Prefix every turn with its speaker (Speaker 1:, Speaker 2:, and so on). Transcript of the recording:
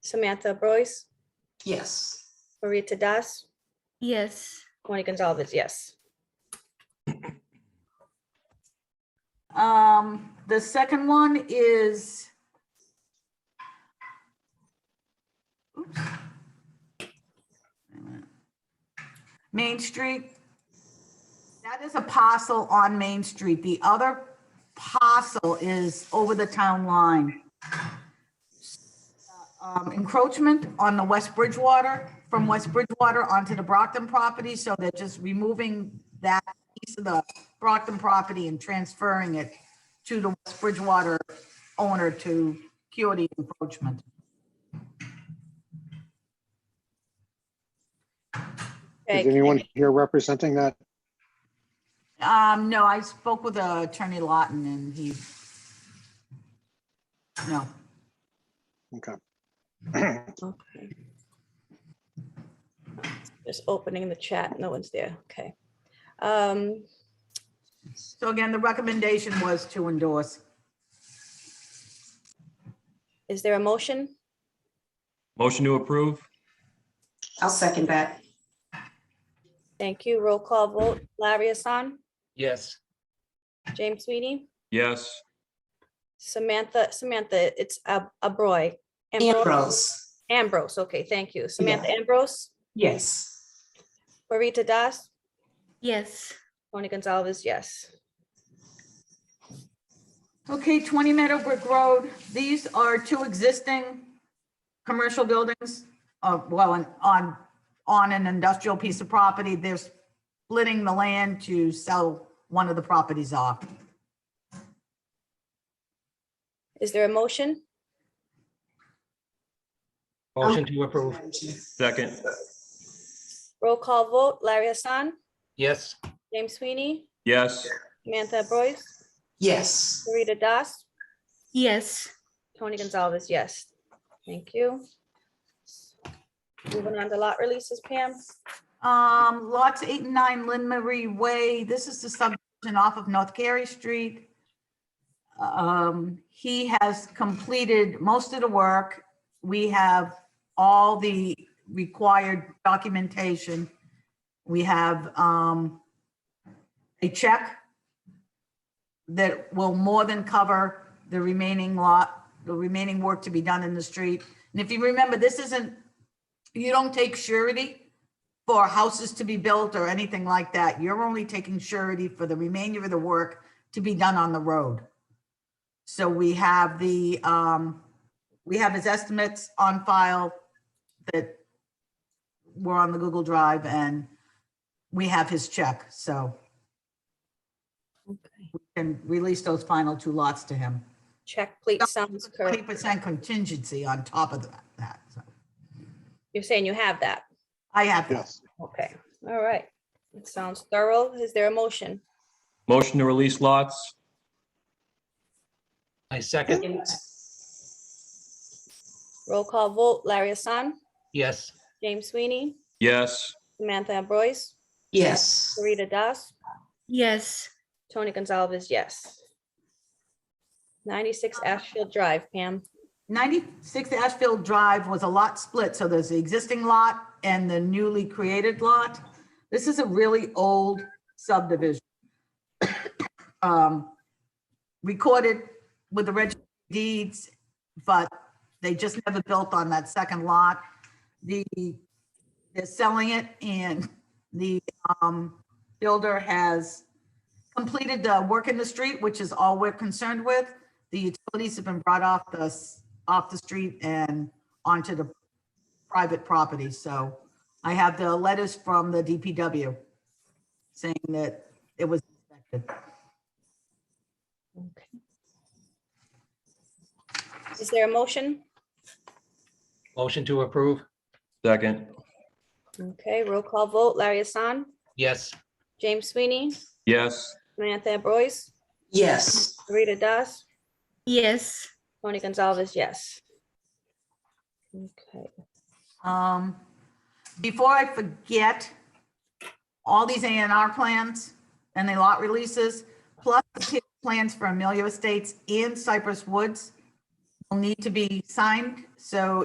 Speaker 1: Samantha Boyce,
Speaker 2: Yes.
Speaker 1: Marita Das,
Speaker 3: Yes.
Speaker 1: Tony Gonzalez, yes.
Speaker 2: Um, the second one is. Oops. Main Street. That is a parcel on Main Street. The other parcel is over the town line. Um, encroachment on the West Bridgewater, from West Bridgewater onto the Brockton property, so they're just removing that piece of the Brockton property and transferring it to the West Bridgewater owner to cure the encroachment.
Speaker 1: Okay,
Speaker 4: Is anyone here representing that?
Speaker 2: Um, no, I spoke with uh, Attorney Lawton and he, no,
Speaker 4: Okay.
Speaker 1: Okay. Just opening the chat, no one's there, okay. Um,
Speaker 2: So again, the recommendation was to endorse.
Speaker 1: Is there a motion?
Speaker 5: Motion to approve?
Speaker 6: I'll second that.
Speaker 1: Thank you. Roll call vote. Larry Hassan,
Speaker 7: yes,
Speaker 1: James Sweeney,
Speaker 5: Yes.
Speaker 1: Samantha, Samantha, it's Ab- Abroy.
Speaker 6: Ambrose,
Speaker 1: Ambrose, okay, thank you. Samantha Ambrose,
Speaker 6: yes.
Speaker 1: Marita Das,
Speaker 3: Yes.
Speaker 1: Tony Gonzalez, yes.
Speaker 2: Okay, 20 Meadowbrook Road, these are two existing commercial buildings, uh, well, on- on, on an industrial piece of property. They're splitting the land to sell one of the properties off.
Speaker 1: Is there a motion?
Speaker 7: motion to approve,
Speaker 5: Second?
Speaker 1: Roll call vote. Larry Hassan,
Speaker 7: yes,
Speaker 1: James Sweeney,
Speaker 5: Yes.
Speaker 1: Samantha Boyce,
Speaker 6: Yes,
Speaker 1: Marita Das,
Speaker 3: Yes.
Speaker 1: Tony Gonzalez, yes. Thank you. Moving on to lot releases, Pam.
Speaker 2: Um, lots eight and nine Lynn Marie Way, this is the subdivision off of North Carey Street. Um, he has completed most of the work. We have all the required documentation. We have, um, a check that will more than cover the remaining lot, the remaining work to be done in the street. And if you remember, this isn't, you don't take surety for houses to be built or anything like that. You're only taking surety for the remainder of the work to be done on the road. So we have the, um, we have his estimates on file that were on the Google Drive and we have his check, so. we can release those final two lots to him.
Speaker 1: Check, please. Sounds
Speaker 2: Twenty
Speaker 1: correct.
Speaker 2: percent contingency on top of that- that, so.
Speaker 1: You're saying you have that.
Speaker 2: I have that.
Speaker 4: Yes.
Speaker 1: Okay, all right. It sounds thorough. Is there a motion?
Speaker 5: Motion to release lots?
Speaker 7: I second,
Speaker 1: Roll call vote. Larry Hassan,
Speaker 7: yes,
Speaker 1: James Sweeney,
Speaker 5: Yes.
Speaker 1: Samantha Boyce,
Speaker 6: yes.
Speaker 1: Sarita Das,
Speaker 3: Yes.
Speaker 1: Tony Gonzalez, yes. 96 Ashfield Drive, Pam.
Speaker 2: 96 Ashfield Drive was a lot split, so there's the existing lot and the newly created lot. This is a really old subdivision. Um, Recorded with the registry of deeds, but they just never built on that second lot. The, they're selling it and the um, builder has completed the work in the street, which is all we're concerned with. The utilities have been brought off the s- off the street and onto the private property. So I have the letters from the DPW saying that it was inspected.
Speaker 1: Is there a motion?
Speaker 7: motion to approve,
Speaker 5: Second?
Speaker 1: Okay, roll call vote. Larry Hassan,
Speaker 7: yes,
Speaker 1: James Sweeney,
Speaker 5: Yes.
Speaker 1: Samantha Boyce,
Speaker 6: Yes,
Speaker 1: Sarita Das,
Speaker 3: Yes.
Speaker 1: Tony Gonzalez, yes. Okay,
Speaker 2: Um, before I forget, all these A and R plans and the lot releases, plus the TIF plans for Amelia Estates and Cypress Woods will need to be signed. So